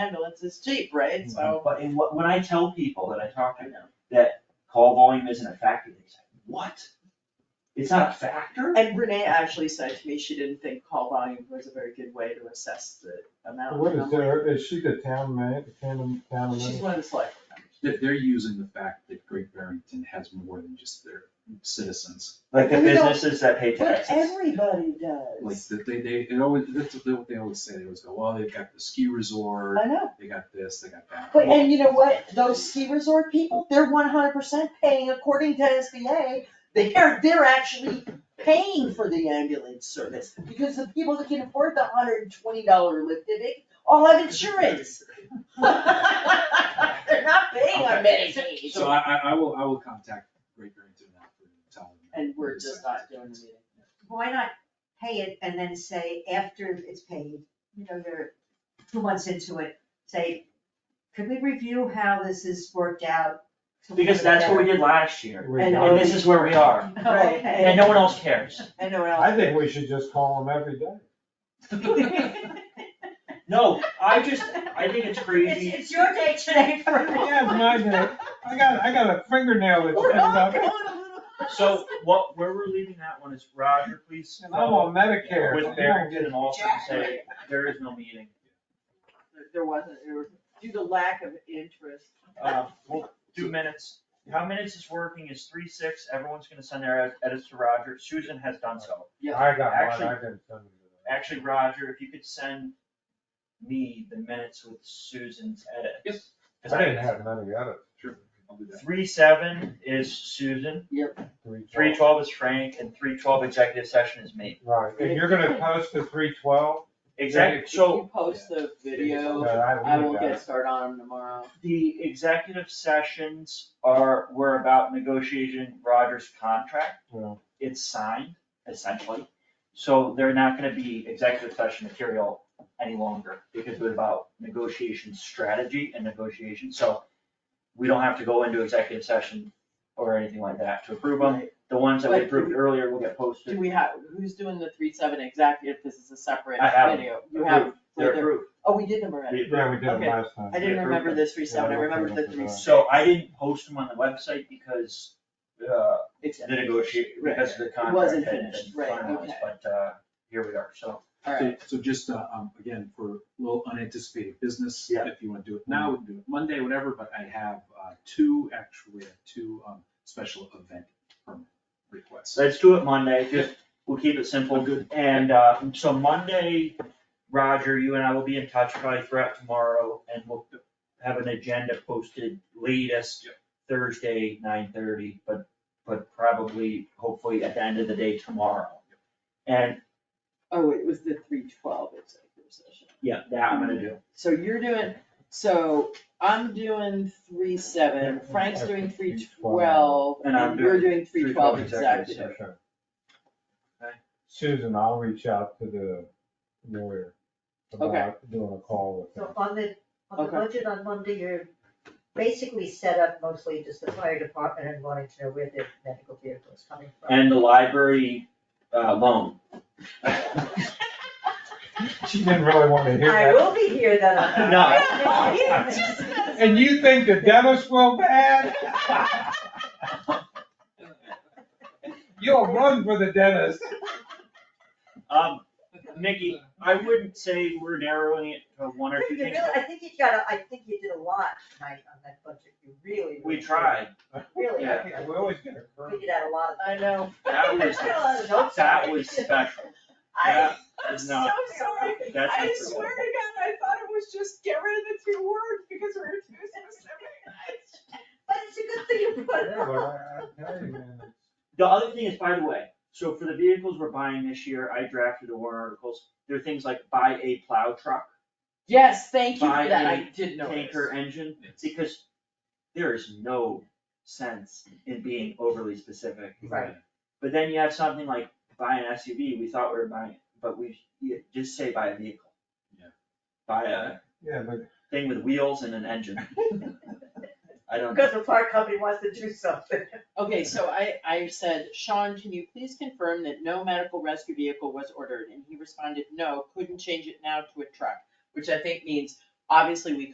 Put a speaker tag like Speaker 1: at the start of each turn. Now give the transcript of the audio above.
Speaker 1: ambulance is cheap, right? So,
Speaker 2: But in what, when I tell people that I talk
Speaker 1: I
Speaker 2: to,
Speaker 1: know.
Speaker 2: that call volume isn't a factor, they say, what? It's not a factor?
Speaker 1: And Renee actually said to me she didn't think call volume was a very good way to assess the amount.
Speaker 3: What
Speaker 1: And
Speaker 3: is
Speaker 1: I'm
Speaker 3: there, is she the town man, town, town
Speaker 1: like, She's
Speaker 3: man?
Speaker 1: one of the select. board members.
Speaker 4: They're, they're using the fact that Great Barrington has more than just their citizens,
Speaker 2: Like the
Speaker 1: And we don't-
Speaker 2: businesses that pay
Speaker 1: But
Speaker 2: taxes.
Speaker 1: everybody
Speaker 4: like,
Speaker 1: does.
Speaker 4: that they, they, it always, that's what they always say, they always go, well, they've got the ski resort,
Speaker 1: I know.
Speaker 4: they got this, they got that.
Speaker 1: But, and you know what, those ski resort people, they're one hundred percent paying according to SBA. They're, they're actually paying for the ambulance service, because the people that can afford the hundred and twenty dollar lift ticket all have insurance. They're not paying on Medicaid.
Speaker 4: So I, I, I will, I will contact Great Barrington now and tell them. that
Speaker 1: And we're
Speaker 4: this
Speaker 1: just
Speaker 4: is-
Speaker 1: not doing the meeting.
Speaker 5: Why not pay it and then say after it's paid, you know, you're two months into it, say, could we review how this is worked out? to
Speaker 2: Because
Speaker 5: work
Speaker 2: that's what we
Speaker 5: better?"
Speaker 2: did last year,
Speaker 3: We
Speaker 1: And
Speaker 3: don't-
Speaker 2: and this is where we are,
Speaker 5: Oh,
Speaker 1: Right.
Speaker 2: and no one else cares.
Speaker 1: I know what
Speaker 3: I think we should just call them every day.
Speaker 5: Okay.
Speaker 2: No, I just, I think it's crazy.
Speaker 5: It's, it's your day today for.
Speaker 3: Yeah, it's my day. I got, I got a fingernail that's
Speaker 1: We're
Speaker 3: coming
Speaker 1: all
Speaker 3: up,
Speaker 1: going
Speaker 3: and
Speaker 1: a little.
Speaker 2: So what, where we're leaving that one is Roger, please.
Speaker 3: I'm on Medicare.
Speaker 2: With Barrington and Alford and say, there is no meeting.
Speaker 1: There- There wasn't, there was, due to lack of interest.
Speaker 2: Uh, we'll do minutes. How minutes is working is three six, everyone's gonna send their ed- edits to Roger, Susan has done so.
Speaker 3: I got one,
Speaker 2: Actually-
Speaker 3: I can send it.
Speaker 2: Actually, Roger, if you could send me the minutes with Susan's edit.
Speaker 4: Yes,
Speaker 3: I didn't have none of the other.
Speaker 4: sure, I'll do that.
Speaker 2: Three seven is Susan, three twelve is Frank, and three twelve executive session is me.
Speaker 3: Right, and you're gonna post the three twelve? uh,
Speaker 2: Exactly,
Speaker 1: If
Speaker 2: so
Speaker 1: you post the video, I
Speaker 3: I
Speaker 1: will
Speaker 3: will
Speaker 1: get started on them tomorrow.
Speaker 2: the executive sessions are, were about negotiation Roger's contract. it's signed essentially, so they're not gonna be executive session material any longer because it was about negotiation strategy and negotiation, so we don't have to go into executive session or anything like that to approve them. The ones that we
Speaker 1: But-
Speaker 2: approved earlier will get
Speaker 1: Do
Speaker 2: posted.
Speaker 1: we have, who's doing the three seven exactly if this is a separate
Speaker 2: I have 'em.
Speaker 1: video? You have,
Speaker 2: They're approved.
Speaker 1: oh, we did them already.
Speaker 2: We
Speaker 3: Yeah, we
Speaker 2: approved.
Speaker 3: did
Speaker 1: Okay.
Speaker 3: it last time.
Speaker 1: I didn't
Speaker 2: approved
Speaker 1: remember
Speaker 2: them.
Speaker 1: the three seven, I
Speaker 3: Yeah, I
Speaker 1: remembered the
Speaker 3: remember
Speaker 1: three.
Speaker 3: that.
Speaker 2: So I didn't post them on the website because, uh,
Speaker 1: It's-
Speaker 2: the negotiate, because the contract.
Speaker 1: wasn't
Speaker 2: hadn't been
Speaker 1: finished, right,
Speaker 2: finalized,
Speaker 1: okay.
Speaker 2: But, uh, here we are, so.
Speaker 1: All right,
Speaker 4: So, so just, uh, um, again, for a little unanticipated business,
Speaker 2: Yeah.
Speaker 4: if you wanna do it now, we can do it Monday, whatever, but I have, uh, two, actually, I have two, um, special event permit requests.
Speaker 2: Let's do it Monday, just, we'll keep it simple.
Speaker 4: Good.
Speaker 2: And, uh, so Monday, Roger, you and I will be in touch probably throughout tomorrow, and we'll have an agenda posted latest
Speaker 4: Yep.
Speaker 2: Thursday, nine thirty, but, but probably, hopefully at the end of the day tomorrow. And,
Speaker 1: oh, it was the three twelve executive session.
Speaker 2: yeah, that I'm gonna do.
Speaker 1: So you're doing, so I'm doing three seven, Frank's doing three twelve,
Speaker 2: And I'm
Speaker 1: and you're
Speaker 2: doing
Speaker 1: doing three twelve executive.
Speaker 3: Sure.
Speaker 2: Okay.
Speaker 3: Susan, I'll reach out to the lawyer about doing a call with
Speaker 5: So
Speaker 3: them.
Speaker 5: on the, on
Speaker 1: Okay.
Speaker 5: the budget on Monday, you're basically set up mostly just the fire department and wanting to know where the medical vehicle is coming from.
Speaker 2: And the library, uh, loan.
Speaker 3: She didn't really want to hear
Speaker 5: I
Speaker 3: that.
Speaker 5: will be here then. on-
Speaker 2: No.
Speaker 3: And you think the dentist will bad? You'll run for the dentist.
Speaker 2: Um, Mickey, I wouldn't say we're narrowing it to one or two
Speaker 5: You
Speaker 2: things.
Speaker 5: really, I think you got, a- I think you did a lot tonight on that budget, you really.
Speaker 2: We
Speaker 5: really
Speaker 2: tried.
Speaker 5: Really, I
Speaker 3: We always get a curve.
Speaker 5: figured out a lot of.
Speaker 1: I know.
Speaker 2: That was,
Speaker 5: I got a lot of notes.
Speaker 2: that was special.
Speaker 1: I,
Speaker 2: That
Speaker 1: I'm
Speaker 2: is
Speaker 1: so
Speaker 2: not-
Speaker 1: sorry.
Speaker 2: That's
Speaker 1: I
Speaker 2: unforgivable.
Speaker 1: swear to God, I thought it was just get rid of the two words because we're too specific.
Speaker 5: But it's a good thing you put it
Speaker 3: Yeah,
Speaker 5: on.
Speaker 3: but I- I tell you, man,
Speaker 2: The other thing is, by the way, so for the vehicles we're buying this year, I drafted the warrant articles, there are things like buy a plow truck,
Speaker 1: Yes, thank you
Speaker 2: Buy
Speaker 1: for that, I
Speaker 2: a
Speaker 1: did know
Speaker 2: tanker engine, because there is no sense in being overly specific.
Speaker 5: Right.
Speaker 2: But then you have something like buy an SUV, we thought we were buying, it, but we, you just say buy a vehicle.
Speaker 4: Yeah.
Speaker 2: Buy a
Speaker 3: Yeah, but
Speaker 2: thing with wheels and an engine. I don't,
Speaker 5: Because the fire company wants to do something.
Speaker 1: Okay, so I, I said, Sean, can you please confirm that no medical rescue vehicle was ordered? And he responded, no, couldn't change it now to a truck, which I think means obviously we